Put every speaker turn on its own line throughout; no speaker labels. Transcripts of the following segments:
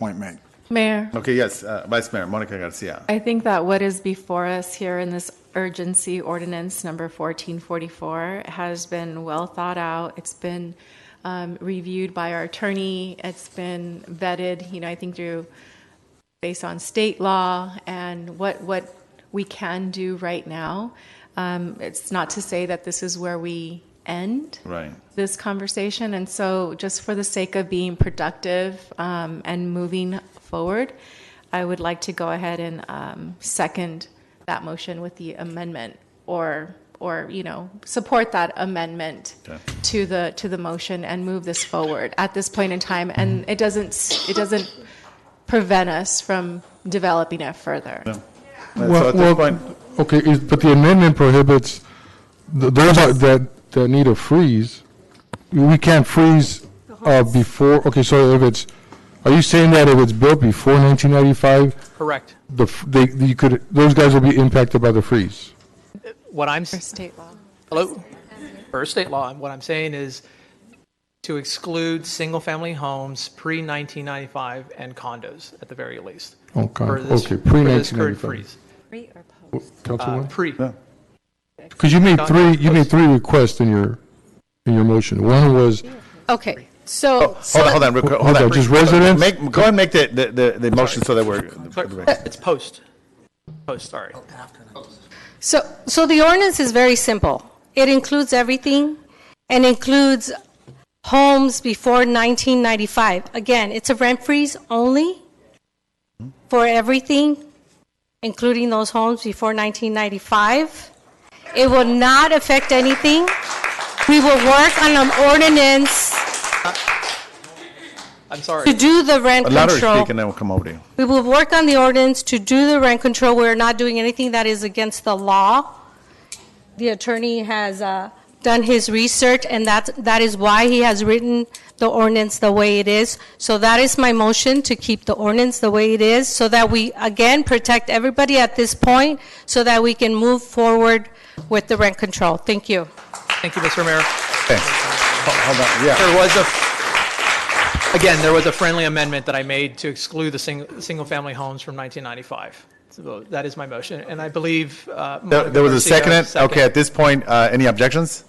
Point made.
Mayor,
Okay, yes, uh, Vice Mayor Monica Garcia.
I think that what is before us here in this urgency ordinance number 1444 has been well thought out. It's been um, reviewed by our attorney. It's been vetted, you know, I think through based on state law and what, what we can do right now. Um, It's not to say that this is where we end.
Right.
this conversation. And so, just for the sake of being productive um, and moving forward, I would like to go ahead and um, second that motion with the amendment, or or you know support that amendment
Okay.
to the to the motion and move this forward at this point in time. And it doesn't it doesn't prevent us from developing it further.
so at this
Well, well,
point,
okay, is- but the amendment prohibits, th- those are- that, that need a freeze, we can't freeze uh, before, okay, so if it's, are you saying that if it's built before 1995,
Correct.
the, f- they, you could, those guys will be impacted by the freeze?
What I'm,
For
s-
state law.
hello, per state law, what I'm saying is to exclude single-family homes pre-1995 and condos at the very least.
Okay,
for this-
okay,
for this current
pre-1995.
freeze. Uh,
Councilwoman?
Pre,
yeah,
Because you made
Don-
three, you made three requests in your, in your motion. One was,
Okay, so,
Oh, Hold on, hold on, real quick, hold
Okay,
on.
just residents?
Make, go ahead and make the, the, the- the motion so that we're.
it's post, post, sorry.
so, so the ordinance is very simple. It includes everything and includes homes before 1995. Again, it's a rent freeze only for everything, including those homes before 1995. It will not affect anything. We will work on an ordinance
I'm
to
sorry.
do the rent
Louder
control.
speak and then we'll come over to you.
We will work on the ordinance to do the rent control. We're not doing anything that is against the law. The attorney has uh, done his research, and that's, that is why he has written the ordinance the way it is. So that is my motion, to keep the ordinance the way it is, so that we, again, protect everybody at this point, so that we can move forward with the rent control. Thank you.
Thank you, Mr. Mayor.
Okay. Hold on, yeah.
There was a, again, there was a friendly amendment that I made to exclude the single, single-family homes from 1995. So that is my motion, and I believe. uh,
There there was a
Monica Garcia
uh,
second, okay, at this point, uh, any objections?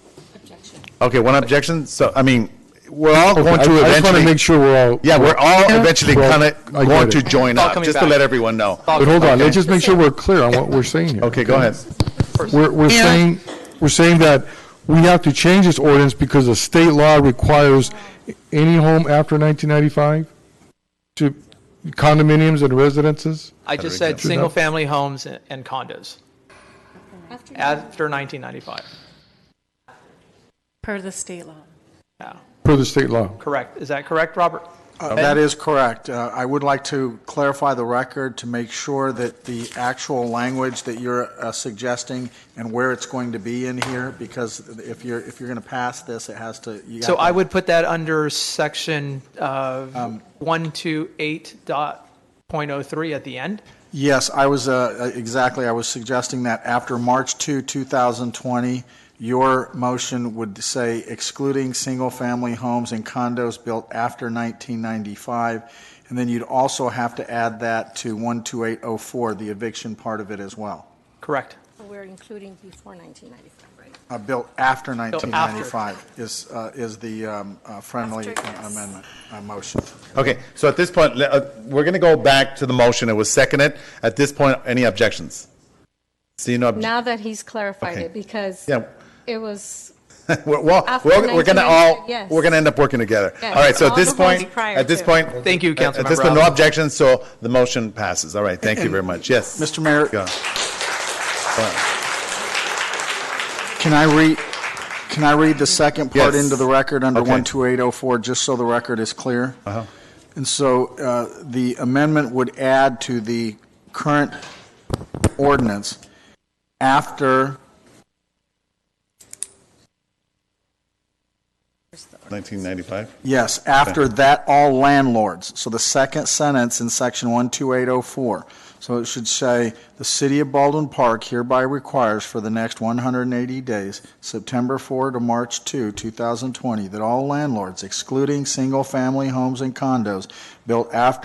Okay, one objection, so, I mean, we're all
okay, I
going to
I just want to
eventually.
make sure we're all.
Yeah, we're all eventually
Well,
kind of
I get
going to
it.
join
All
up,
coming
just to
back.
let everyone know.
But hold on,
Okay.
let's just make sure we're clear on what we're saying here.
Okay, go ahead.
We're, we're saying, we're saying that we have to change this ordinance because the state law requires any home after 1995 to condominiums and residences?
I just said
that?
single-family homes and and condos after 1995.
Per the state law.
Yeah,
Per the state law.
correct. Is that correct, Robert?
That is correct. Uh, I would like to clarify the record to make sure that the actual language that you're uh, suggesting and where it's going to be in here, because if you're, if you're going to pass this, it has to. you
So
have to-
I would put that under section uh, 128.03 at the end.
Yes, I was, uh, exactly, I was suggesting that after March 2, 2020, your motion would say excluding single-family homes and condos built after 1995, and then you'd also have to add that to 12804, the eviction part of it as well,
Correct.
We're including before 1995, right?
Uh, built after 1995 is, uh, is the um, uh, friendly amendment, uh, motion.
Okay, so at this point, le- uh, we're going to go back to the motion, it was seconded. At this point, any objections? See, no, obj-
Now that he's clarified
Okay.
it, because
yeah,
it was
we're, well,
After
we're, we're going to all,
1990, yes.
we're going to end up working together.
Yes,
All right, so at
all
this
the votes
point,
prior
at this
to.
point.
Thank you,
At this
Councilmember
point, no
Allen.
objections, so the motion passes. All right, thank you very much. Yes.
Mr. Mayor,
Go.
Can I read, can I read the second part
Yes.
into the record under
Okay.
12804, just so the record is clear?
Uh-huh.
And so uh, the amendment would add to the current ordinance after
1995?
Yes, after that, all landlords. So the second sentence in section 12804. So it should say, "The city of Baldwin Park hereby requires for the next 180 days, September 4 to March 2, 2020, that all landlords, excluding single-family homes and condos built after